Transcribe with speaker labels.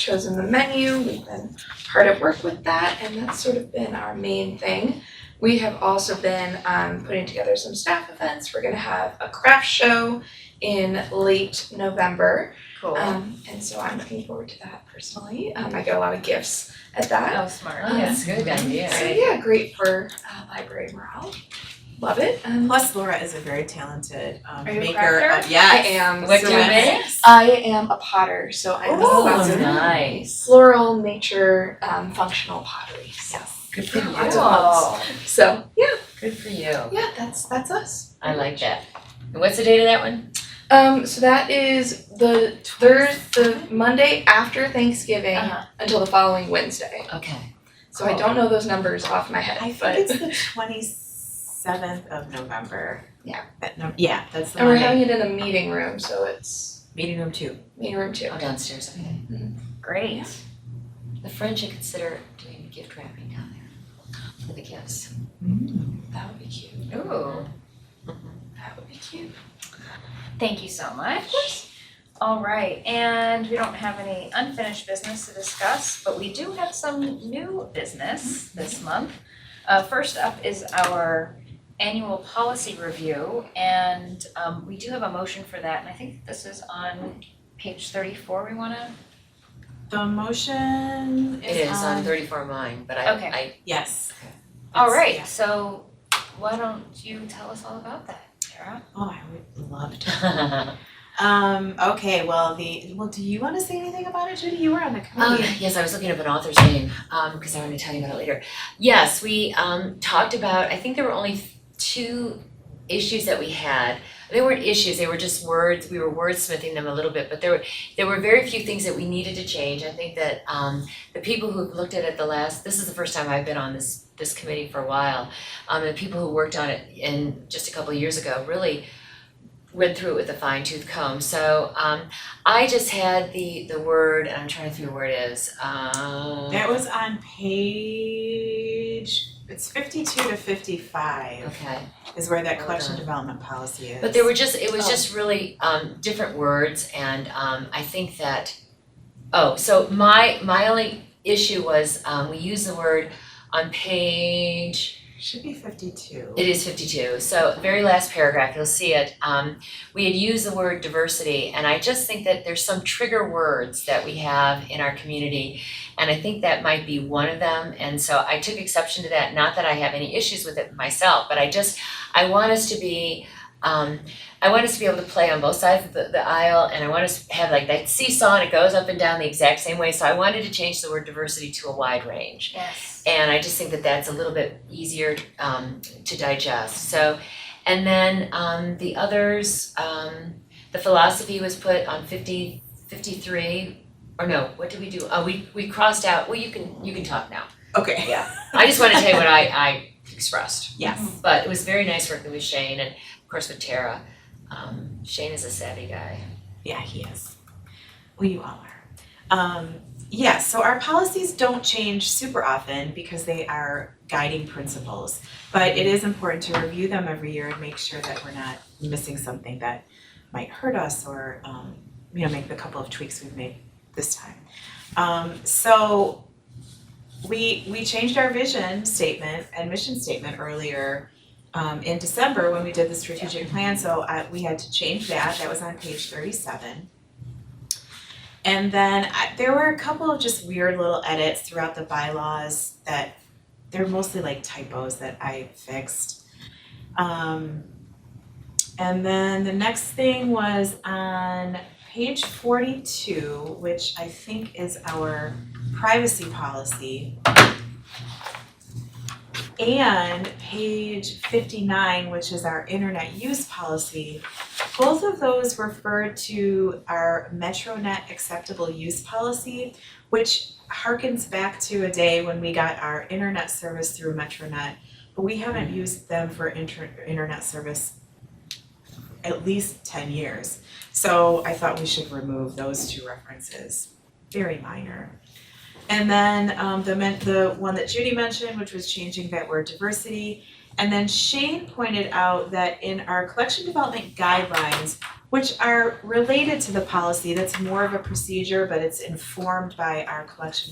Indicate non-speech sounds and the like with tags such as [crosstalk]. Speaker 1: chosen the menu, we've been hard at work with that, and that's sort of been our main thing. We have also been um putting together some staff events, we're gonna have a craft show in late November.
Speaker 2: Cool.
Speaker 1: Um and so I'm looking forward to that personally, um I get a lot of gifts at that.
Speaker 2: Oh, smart.
Speaker 3: uh,
Speaker 4: Oh, that's a good
Speaker 1: So
Speaker 4: idea.
Speaker 1: yeah, great for uh library morale, love it, um
Speaker 5: Plus Laura is a very talented um
Speaker 1: Are you a
Speaker 5: maker
Speaker 1: crafter?
Speaker 5: of yes.
Speaker 1: I am.
Speaker 4: What do
Speaker 5: So
Speaker 4: you
Speaker 5: that's-
Speaker 4: make? Oh,
Speaker 1: I am a potter, so I make
Speaker 5: Ooh,
Speaker 1: lots of
Speaker 4: nice.
Speaker 1: floral nature um functional pottery. Yes.
Speaker 4: Good for you.
Speaker 1: Lots of loves. So yeah,
Speaker 4: Good for you.
Speaker 1: yeah, that's that's us.
Speaker 4: I like that. And what's the date of that one?
Speaker 1: Um so that is the third the Monday after Thanksgiving
Speaker 4: Uh-huh.
Speaker 1: until the following Wednesday.
Speaker 4: Okay.
Speaker 1: So I don't know those numbers off my head,
Speaker 5: I think
Speaker 1: but [laughs]
Speaker 5: it's
Speaker 4: [laughs]
Speaker 5: the twenty seventh of November.
Speaker 1: Yeah.
Speaker 5: That no, yeah, that's the
Speaker 1: and we're
Speaker 5: Monday.
Speaker 1: having it in a meeting room, so it's
Speaker 5: Meeting room two.
Speaker 1: meeting room two.
Speaker 4: Oh, downstairs, okay. Great. The French should consider doing gift wrapping down there for the gifts. Mm.
Speaker 1: That would be cute.
Speaker 4: Ooh.
Speaker 1: That would be cute.
Speaker 3: Thank you so much. All right, and we don't have any unfinished business to discuss, but we do have some new business this month. Uh, first up is our annual policy review, and, um, we do have a motion for that, and I think this is on page thirty-four, we wanna,
Speaker 5: The motion
Speaker 4: It
Speaker 5: is
Speaker 4: is on thirty-four mine, but I,
Speaker 3: Okay.
Speaker 4: I,
Speaker 5: Yes.
Speaker 3: all
Speaker 5: It's-
Speaker 3: right,
Speaker 5: yeah.
Speaker 3: so why don't you tell us all about that, Tara?
Speaker 5: Oh, I would love to.
Speaker 4: [laughs]
Speaker 5: Um, okay, well the well do you wanna say anything about it, Judy? You were on the
Speaker 4: Um,
Speaker 5: committee.
Speaker 4: yes, I was looking up an author's name, um, because I wanted to tell you about it later. Yes, we, um, talked about, I think there were only two issues that we had. They weren't issues, they were just words, we were wordsmithing them a little bit, but there were, there were very few things that we needed to change. I think that, um, the people who've looked at it the last, this is the first time I've been on this, this committee for a while. Um, and people who worked on it in, just a couple of years ago, really went through it with a fine tooth comb. So, um, I just had the the word, and I'm trying to think of where it is. Um,
Speaker 5: That was on page it's fifty two to fifty five
Speaker 4: okay.
Speaker 5: is where that
Speaker 4: Hold
Speaker 5: collection
Speaker 4: on.
Speaker 5: development policy is.
Speaker 4: But there were just it was
Speaker 1: Oh.
Speaker 4: just really um, different words, and um, I think that oh, so my my only issue was um, we use the word on page
Speaker 5: should be fifty two.
Speaker 4: It is fifty-two, so very last paragraph, you'll see it, um, we had used the word diversity, and I just think that there's some trigger words that we have in our community, and I think that might be one of them, and so I took exception to that, not that I have any issues with it myself, but I just, I want us to be, um, I want us to be able to play on both sides of the, the aisle, and I want us to have like that seesaw, and it goes up and down the exact same way, so I wanted to change the word diversity to a wide range.
Speaker 3: Yes.
Speaker 4: And I just think that that's a little bit easier um to digest, so. And then um the others, um the philosophy was put on fifty, fifty-three, or no, what did we do? Oh, we we crossed out, well, you can, you can talk now.
Speaker 5: Okay.
Speaker 4: I just wanna tell you what I I expressed,
Speaker 5: Yes.
Speaker 4: but it was very nice working with Shane and of course with Tara. Um Shane is a savvy guy.
Speaker 5: Yeah, he is. Well, you all are. Um, yeah, so our policies don't change super often because they are guiding principles. But it is important to review them every year and make sure that we're not missing something that might hurt us or, um, you know, make the couple of tweaks we've made this time. Um, so we, we changed our vision statement and mission statement earlier um, in December when we did the strategic plan, so I, we had to change that, that was on page thirty-seven. And then I, there were a couple of just weird little edits throughout the bylaws that, they're mostly like typos that I fixed. Um, and then the next thing was on page forty-two, which I think is our privacy policy. And page fifty-nine, which is our internet use policy, both of those refer to our MetroNet acceptable use policy, which harkens back to a day when we got our internet service through MetroNet, but we haven't used them for inter- internet service at least ten years. So I thought we should remove those two references, very minor. And then um the men- the one that Judy mentioned, which was changing that word diversity. And then Shane pointed out that in our collection development guidelines, which are related to the policy that's more of a procedure, but it's informed by our collection